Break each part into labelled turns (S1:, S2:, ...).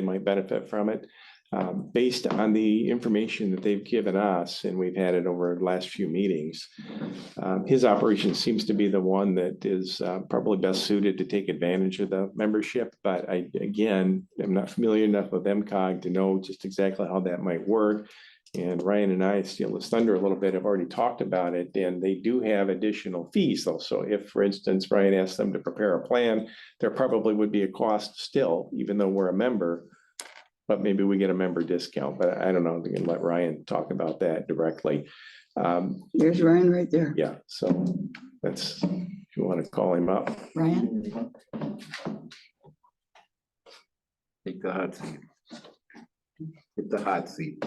S1: might benefit from it. Um, based on the information that they've given us, and we've had it over the last few meetings. Um, his operation seems to be the one that is uh, probably best suited to take advantage of the membership, but I, again, am not familiar enough with MCOG to know just exactly how that might work. And Ryan and I, steal his thunder a little bit, have already talked about it, and they do have additional fees though. So if, for instance, Ryan asked them to prepare a plan, there probably would be a cost still, even though we're a member. But maybe we get a member discount, but I don't know, we can let Ryan talk about that directly. Um,
S2: There's Ryan right there.
S1: yeah, so that's, if you want to call him up.
S2: Ryan,
S3: Take the hot seat. Get the hot seat.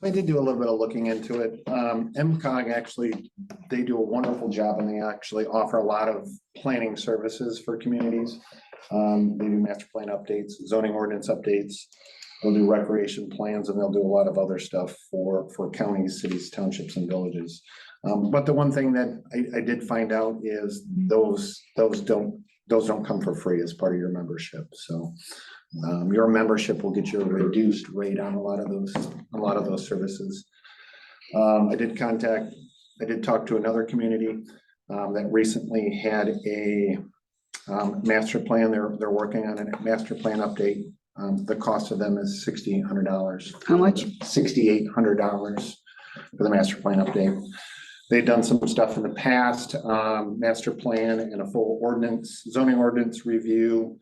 S4: I did do a little bit of looking into it. Um, MCOG actually, they do a wonderful job and they actually offer a lot of planning services for communities. Um, they do master plan updates, zoning ordinance updates. They'll do recreation plans and they'll do a lot of other stuff for, for counties, cities, townships and villages. Um, but the one thing that I, I did find out is those, those don't, those don't come for free as part of your membership, so. Um, your membership will get you a reduced rate on a lot of those, a lot of those services. Um, I did contact, I did talk to another community, um, that recently had a. Um, master plan, they're, they're working on a master plan update, um, the cost of them is sixteen hundred dollars.
S2: How much?
S4: Sixty-eight hundred dollars for the master plan update. They've done some stuff in the past, um, master plan and a full ordinance, zoning ordinance review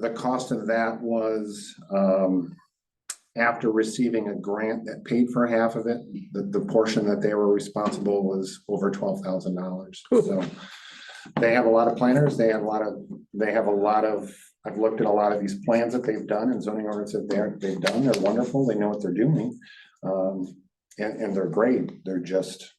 S4: the cost of that was, um, after receiving a grant that paid for half of it, the, the portion that they were responsible was over twelve thousand dollars, so. They have a lot of planners, they have a lot of, they have a lot of, I've looked at a lot of these plans that they've done and zoning ordinance that they're, they've done, they're wonderful, they know what they're doing. Um, and, and they're great, they're just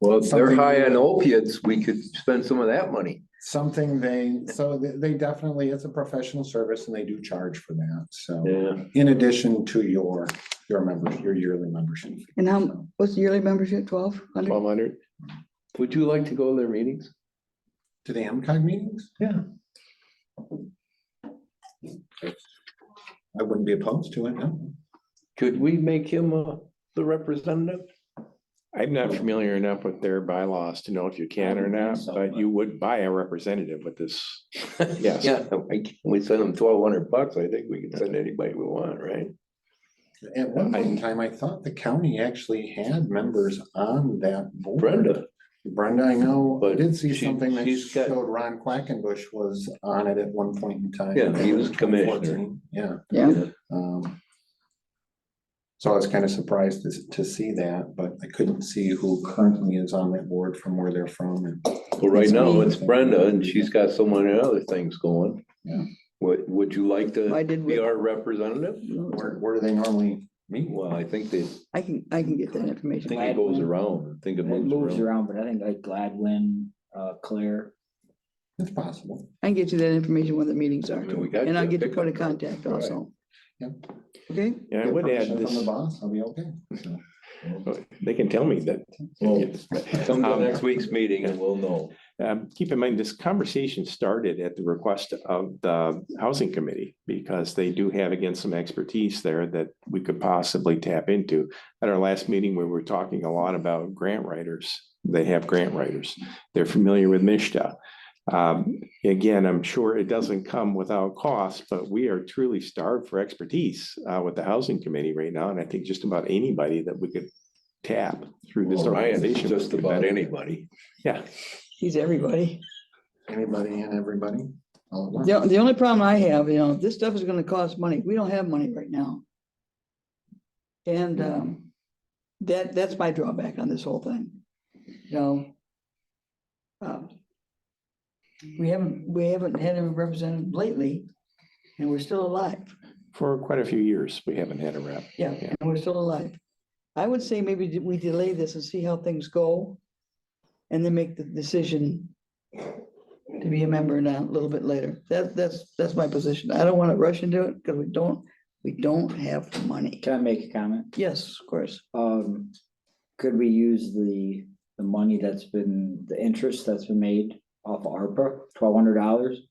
S3: Well, if they're
S4: Something-
S3: high on opiates, we could spend some of that money.
S4: something they, so they- they definitely, it's a professional service and they do charge for that, so.
S3: Yeah.
S4: In addition to your, your membership, your yearly membership. fee.
S2: and how, what's the yearly membership, twelve hundred?
S1: Twelve hundred.
S3: Would you like to go to their meetings?
S4: To the MCOG meetings? Yeah. I wouldn't be opposed to it, no.
S3: Could we make him uh, the representative?
S1: I'm not familiar enough with their bylaws to know if you can or not, but you would buy a representative with this. Yes.
S3: Yeah, I can- we send him twelve hundred bucks. I think we can send anybody we want, right?
S4: At one point in time, I thought the county actually had members on that board.
S3: Brenda,
S4: Brenda, I know, I
S3: But
S4: did see
S3: she-
S4: something that
S3: she's got-
S4: showed Ron Quackenbush was on it at one point in time.
S3: Yeah, he was
S4: in 2014.
S3: commissioner.
S4: Yeah.
S2: Yeah,
S4: Um, So I was kind of surprised to, to see that, but I couldn't see who currently is on that board from where they're from and.
S3: well, right now it's Brenda and she's got so many other things going.
S4: Yeah.
S3: Would, would you like
S2: I
S3: to
S2: did.
S3: be
S2: with-
S3: our representative?
S4: Where, where do they normally meet?
S3: Well, I think they,
S2: I can, I can get that
S3: I
S2: information.
S3: think it goes around. I think it
S5: It moves
S3: moves around.
S5: around, but I think like Gladwin, uh, Claire.
S4: It's possible.
S2: I can get you that information when the meetings
S3: I
S2: are,
S3: mean, we got
S2: and I'll
S3: the
S2: get your
S3: pickup
S2: point of
S3: truck.
S2: contact also.
S4: Yep.
S2: Okay,
S1: And I
S4: Get
S1: would
S4: permission
S1: add
S4: From the
S1: this,
S4: boss, I'll be okay. So,
S1: they can tell me that.
S3: Come to
S1: Um,
S3: next week's meeting and we'll know.
S1: Um, keep in mind, this conversation started at the request of the housing committee because they do have again some expertise there that we could possibly tap into. At our last meeting, we were talking a lot about grant writers. They have grant writers. They're familiar with Mishta. Um, again, I'm sure it doesn't come without cost, but we are truly starved for expertise uh, with the housing committee right now. And I think just about anybody that we could tap through this
S3: Well, Ryan, it's
S1: organization.
S3: just about anybody.
S1: Yeah.
S2: he's everybody.
S4: Anybody and everybody? all at once.
S2: The, the only problem I have, you know, this stuff is gonna cost money. We don't have money right now. And, um, that, that's my drawback on this whole thing, you know. um, We haven't, we haven't had a representative lately, and we're still alive.
S1: For quite a few years, we haven't had a rep.
S2: Yeah,
S1: Yeah.
S2: and we're still alive. I would say maybe d- we delay this and see how things go. And then make the decision to be a member now a little bit later. That, that's, that's my position. I don't want to rush into it because we don't, we don't have the money.
S5: Can I make a comment?
S2: Yes, of course.
S5: Um, could we use the, the money that's been, the interest that's been made off of ARPA, twelve hundred dollars?